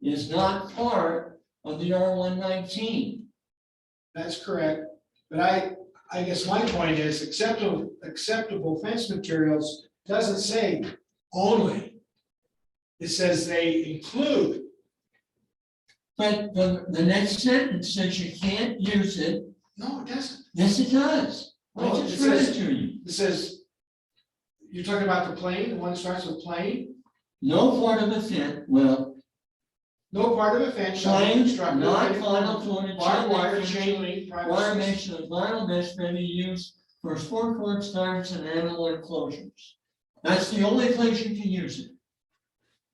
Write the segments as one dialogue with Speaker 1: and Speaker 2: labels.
Speaker 1: is not part of the R one nineteen.
Speaker 2: That's correct, but I, I guess my point is acceptable, acceptable fence materials doesn't say only. It says they include,
Speaker 1: But the, the next sentence says you can't use it,
Speaker 2: no, it doesn't,
Speaker 1: yes, it does. I
Speaker 2: No, it
Speaker 1: just read it
Speaker 2: says-
Speaker 1: to you.
Speaker 2: it says. You're talking about the plane, the one that starts with plane,
Speaker 1: No part of the fence, well,
Speaker 2: no part of a fence shall be
Speaker 1: plain,
Speaker 2: constructed.
Speaker 1: not
Speaker 2: with
Speaker 1: final furniture.
Speaker 2: Barbed wire, chain link, privacy.
Speaker 1: Wire mesh of vinyl mesh may be used for sport court starts and animal enclosures. That's the only place you can use it.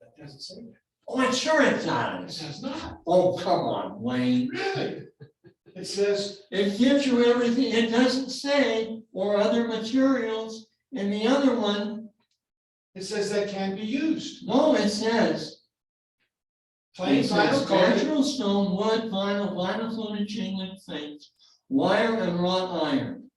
Speaker 2: That Doesn't say
Speaker 1: Oh, it sure it
Speaker 2: that, it
Speaker 1: does.
Speaker 2: says not,
Speaker 1: Oh, come on, Wayne.
Speaker 2: really, it says,
Speaker 1: It gives you everything, it doesn't say, or other materials, and the other one,
Speaker 2: it says that can be used,
Speaker 1: no, it says.
Speaker 2: plain
Speaker 1: it says
Speaker 2: vinyl coated,
Speaker 1: Natural stone, wood, vinyl, vinyl coated chain link fence, wire and wrought iron.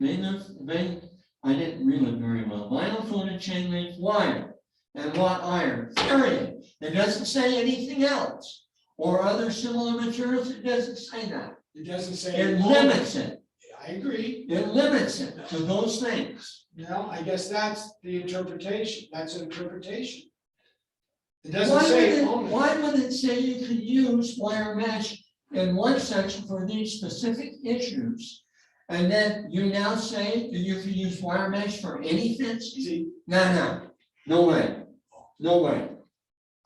Speaker 1: Main of, main, I didn't read it very well, vinyl coated chain link wire and wrought iron, period. It doesn't say anything else, or other similar materials, it doesn't say that.
Speaker 2: it doesn't say.
Speaker 1: It
Speaker 2: only.
Speaker 1: limits it.
Speaker 2: I agree.
Speaker 1: It limits it to those things.
Speaker 2: No, I guess that's the interpretation, that's an interpretation. It
Speaker 1: Why
Speaker 2: doesn't
Speaker 1: would
Speaker 2: say
Speaker 1: it-
Speaker 2: only.
Speaker 1: Why would it say you can use wire mesh in one section for these specific issues? And then you now say that you can use wire mesh for any fence?
Speaker 2: See,
Speaker 1: No, no, no way, no way.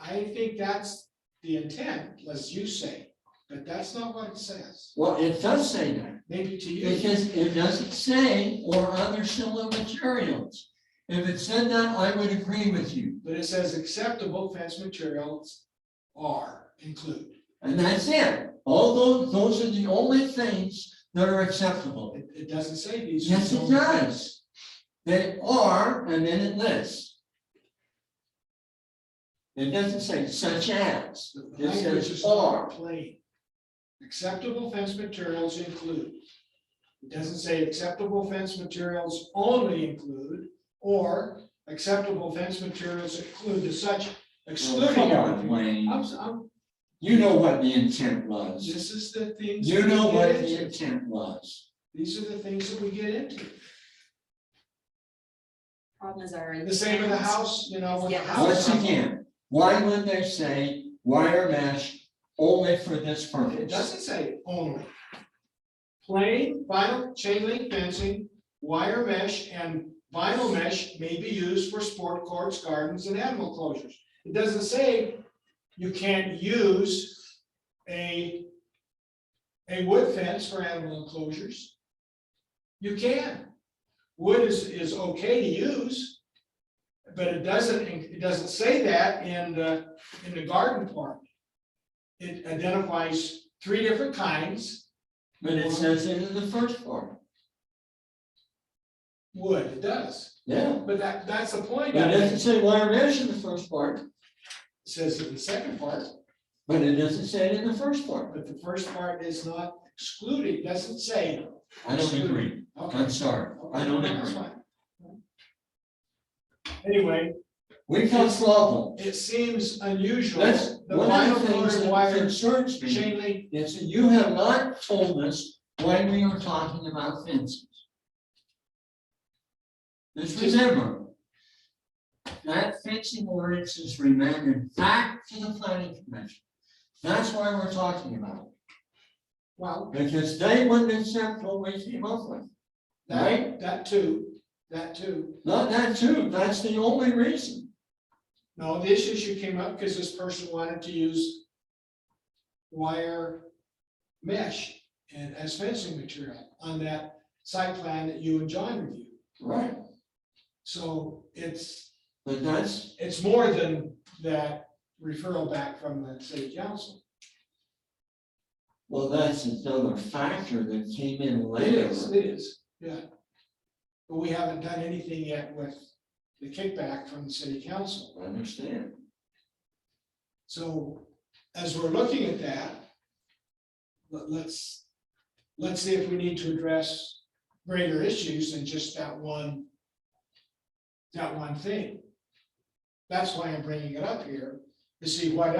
Speaker 2: I think that's the intent, as you say, but that's not what it says,
Speaker 1: Well, it does say that,
Speaker 2: maybe to you.
Speaker 1: because it doesn't say or other similar materials. If it said that, I would agree with you,
Speaker 2: But it says acceptable fence materials are include.
Speaker 1: and that's it. All those, those are the only things that are acceptable.
Speaker 2: It, it doesn't say these. are
Speaker 1: Yes, it
Speaker 2: only-
Speaker 1: does. They are, and then it lists. It doesn't say such as,
Speaker 2: The
Speaker 1: it
Speaker 2: language
Speaker 1: says
Speaker 2: is not
Speaker 1: are.
Speaker 2: plain. Acceptable fence materials include. It doesn't say acceptable fence materials only include, or acceptable fence materials include as such
Speaker 1: Well,
Speaker 2: excluding.
Speaker 1: Come on,
Speaker 2: everything.
Speaker 1: Wayne,
Speaker 2: I'm, s- I'm-
Speaker 1: you know what the intent was,
Speaker 2: this is the things.
Speaker 1: you
Speaker 2: that we
Speaker 1: know
Speaker 2: get
Speaker 1: what
Speaker 2: into.
Speaker 1: the intent was.
Speaker 2: These are the things that we get into.
Speaker 3: Problem is our.
Speaker 2: The same with the house, you know, with the
Speaker 3: Yeah.
Speaker 2: house.
Speaker 1: Once again, why would they say wire mesh only for this
Speaker 2: It
Speaker 1: purpose?
Speaker 2: doesn't say only. Plain vinyl chain link fencing, wire mesh and vinyl mesh may be used for sport courts, gardens and animal closures. It doesn't say you can't use a a wood fence for animal enclosures. You can. Wood is is okay to use. But it doesn't, it doesn't say that in the in the garden part. It identifies three different kinds,
Speaker 1: But it says it in the first part,
Speaker 2: wood, it does,
Speaker 1: yeah,
Speaker 2: but that, that's the point.
Speaker 1: but it doesn't say wire mesh in the first part,
Speaker 2: It Says in the second part,
Speaker 1: but it doesn't say it in the first part.
Speaker 2: but the first part is not excluded, doesn't say.
Speaker 1: I don't agree,
Speaker 2: Okay.
Speaker 1: I'm sorry, I don't
Speaker 2: That's
Speaker 1: agree.
Speaker 2: fine. Anyway,
Speaker 1: We've got problems.
Speaker 2: it seems unusual.
Speaker 1: That's
Speaker 2: The
Speaker 1: one of
Speaker 2: vinyl
Speaker 1: the things
Speaker 2: colored
Speaker 1: that
Speaker 2: wire
Speaker 1: concerns me,
Speaker 2: chain link,
Speaker 1: is that you have not told us why we are talking about fences. Just remember, that fencing ordinance is remanded back to the planning commission. That's why we're talking about
Speaker 2: well,
Speaker 1: it, because they wouldn't accept what we came up with.
Speaker 2: that, that too, that too.
Speaker 1: Not that too, that's the only reason.
Speaker 2: No, this issue came up because this person wanted to use wire mesh and as fencing material on that site plan that you and John reviewed.
Speaker 1: Right.
Speaker 2: So it's,
Speaker 1: But that's,
Speaker 2: it's more than that referral back from the city council.
Speaker 1: well, that's another factor that came in
Speaker 2: It
Speaker 1: later.
Speaker 2: is, it is, yeah. But we haven't done anything yet with the kickback from the city council.
Speaker 1: I understand.
Speaker 2: So as we're looking at that, let, us let's see if we need to address greater issues than just that one, that one thing. That's why I'm bringing it up here, to see what